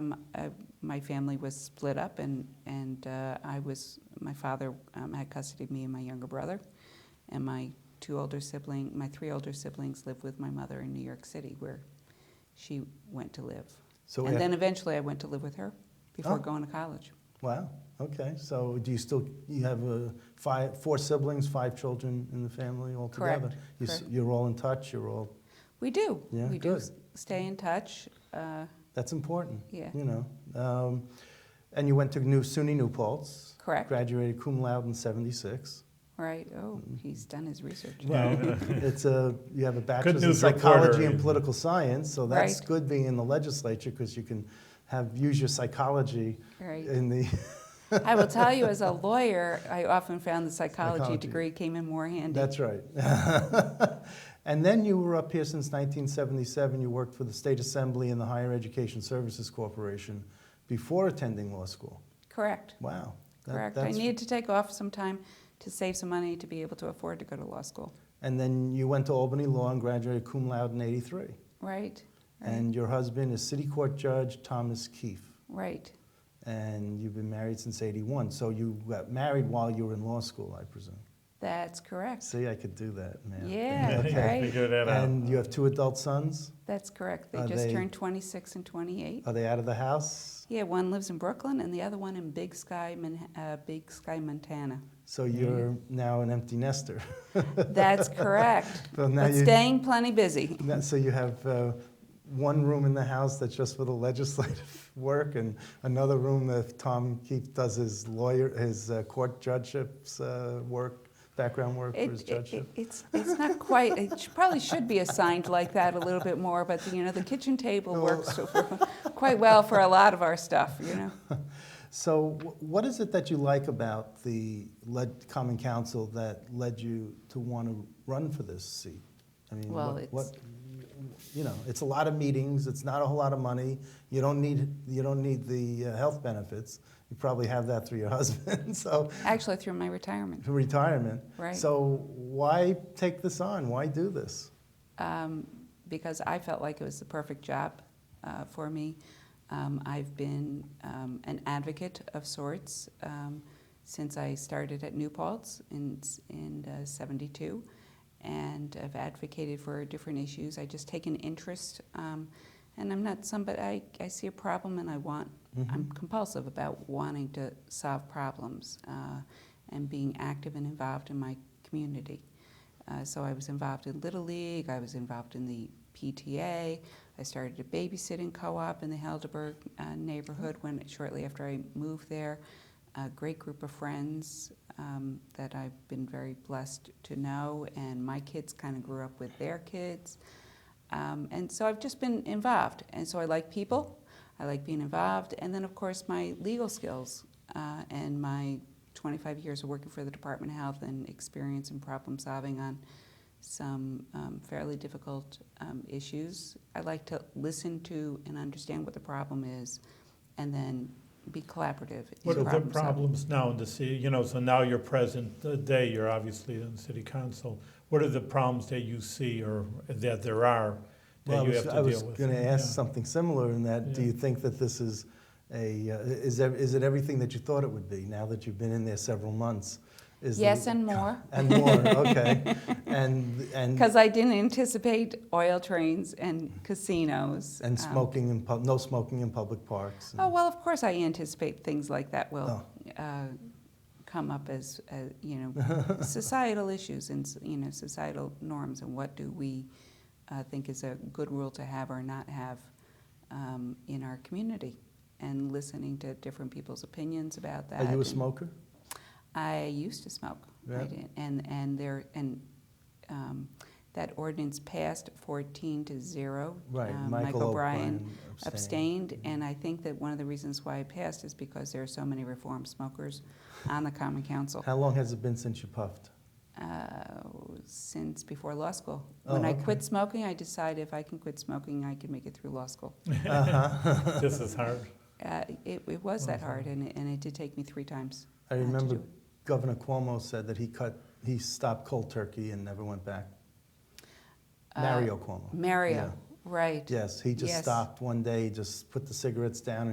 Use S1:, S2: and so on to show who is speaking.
S1: um, I- my family was split up, and, and uh, I was, my father um, had custody of me and my younger brother, and my two older siblings, my three older siblings lived with my mother in New York City, where she went to live.
S2: So
S1: And
S2: af-
S1: then eventually I went to live with her before
S2: Oh.
S1: going to college.
S2: Wow, okay, so do you still, you have uh, five, four siblings, five children in the family altogether?
S1: Correct,
S2: You s-
S1: correct.
S2: You're all in touch, you're all,
S1: We do.
S2: Yeah,
S1: we do
S2: good.
S1: s- stay in touch. Uh,
S2: that's important,
S1: yeah,
S2: you know. Um, And you went to New SUNY New Paltz,
S1: correct.
S2: graduated cum laude in 76.
S1: Right. Oh,
S2: Mm-hmm.
S1: he's done his research.
S2: Well, it's a, you have a bachelor's in
S3: Oh. news reporter.
S2: psychology and political science, so that's
S1: Right.
S2: good being in the legislature because you can have, use your psychology
S1: Right.
S2: in the,
S1: I will tell you, as a lawyer, I often found the psychology,
S2: Psychology.
S1: degree came in more handy.
S2: That's right. and then you were up here since 1977. You worked for the State Assembly and the Higher Education Services Corporation before attending law school.
S1: correct.
S2: Wow. That-
S1: Correct. I
S2: that's-
S1: needed to take off some time to save some money to be able to afford to go to law school.
S2: And then you went to Albany Law and graduated cum laude in 83.
S1: Right. Right.
S2: And your husband is City Court Judge Thomas Keefe.
S1: right.
S2: And you've been married since 81. So you got married while you were in law school, I presume.
S1: That's correct.
S2: See, I could do that, man.
S1: Yeah, right.
S3: Figure that out.
S2: And you have two adult sons.
S1: That's correct. They
S2: Are
S1: just
S2: they-
S1: turned 26 and 28.
S2: Are they out of the house?
S1: Yeah, one lives in Brooklyn and the other one in Big Sky, Mon- uh, Big Sky, Montana.
S2: So you're now an empty nester.
S1: That's correct.
S2: So now
S1: But
S2: you,
S1: staying plenty busy.
S2: now- so you have uh, one room in the house that's just for the legislative work, and another room that Tom Keefe does his lawyer, his uh, court judgeships uh, work, background work
S1: It-
S2: for his
S1: it-
S2: judgeship.
S1: it- it's, it's not quite, it sh- probably should be assigned like that a little bit more, but you know, the kitchen table
S2: Well-
S1: works so- quite well for a lot of our stuff, you know.
S2: So wh- what is it that you like about the led, Common Council that led you to want to run for this seat? I mean,
S1: Well,
S2: what,
S1: it's-
S2: what- you know, it's a lot of meetings. It's not a whole lot of money. You don't need you don't need the uh, health benefits. You probably have that through your husband. so
S1: Actually, through my retirement.
S2: for retirement.
S1: Right.
S2: So why take this on? Why do this?
S1: um, because I felt like it was the perfect job uh, for me. Um, I've been um, an advocate of sorts um, since I started at New Paltz in in uh, '72, and I've advocated for different issues. I just take an interest, um, and I'm not somebody. I, I see a problem and I want.
S2: Mm-hmm.
S1: I'm compulsive about wanting to solve problems uh, and being active and involved in my community. Uh, so I was involved in Little League, I was involved in the PTA, I started a babysitting co-op in the Helderberg uh, neighborhood when shortly after I moved there. A great group of friends um, that I've been very blessed to know, and my kids kind of grew up with their kids. Um, and so I've just been involved. And so I like people, I like being involved, and then of course my legal skills uh, and my 25 years of working for the Department of Health and experience in problem solving on some um, fairly difficult um, issues. I like to listen to and understand what the problem is and then be collaborative. in
S3: What are the
S1: problem solving.
S3: problems now in the city, you know, so now you're present uh, day, you're obviously in the city council. What are the problems that you see or that there are
S2: Well,
S3: that you have to
S2: I
S3: deal
S2: was,
S3: with?
S2: I was going to ask
S3: Yeah.
S2: something similar in that. Do
S3: Yeah.
S2: you think that this is a uh, is there, is it everything that you thought it would be now that you've been in there several months? Is the-
S1: Yes, and more.
S2: and more. Okay, and and
S1: Because I didn't anticipate oil trains and casinos.
S2: and
S1: um,
S2: smoking in pub, no smoking in public parks. and-
S1: Oh, well, of course, I anticipate things like that will
S2: Oh.
S1: uh, come up as, as, you know, societal issues and, s- you know, societal norms and what do we uh, think is a good rule to have or not have um, in our community and listening to different people's opinions about that.
S2: Are Oh, you a
S1: and-
S2: smoker?
S1: I used to smoke. I
S2: Yeah.
S1: did. And, and there, and um, that ordinance passed 14 to 0.
S2: Right,
S1: Um,
S2: Michael
S1: O'Brien
S2: O'Brien abstained.
S1: abstained, and I think that one of the reasons why it passed is because there are so many reform smokers on the Common Council
S2: How long has it been since you puffed?
S1: uh, since before law school. When
S2: Oh,
S1: I
S2: okay.
S1: quit smoking, I decided if I can quit smoking, I can make it through law school.
S2: uh-huh.
S3: This is hard.
S1: Uh, It, it was that
S3: Wow.
S1: hard, and it, and it did take me three times.
S2: I
S1: uh, to
S2: remember
S1: do it.
S2: Governor Cuomo said that he cut he stopped cold turkey and never went back.
S1: Uh,
S2: Mario Cuomo.
S1: Mario,
S2: Yeah.
S1: right.
S2: Yes, he just
S1: Yes.
S2: stopped one day, just put the cigarettes down,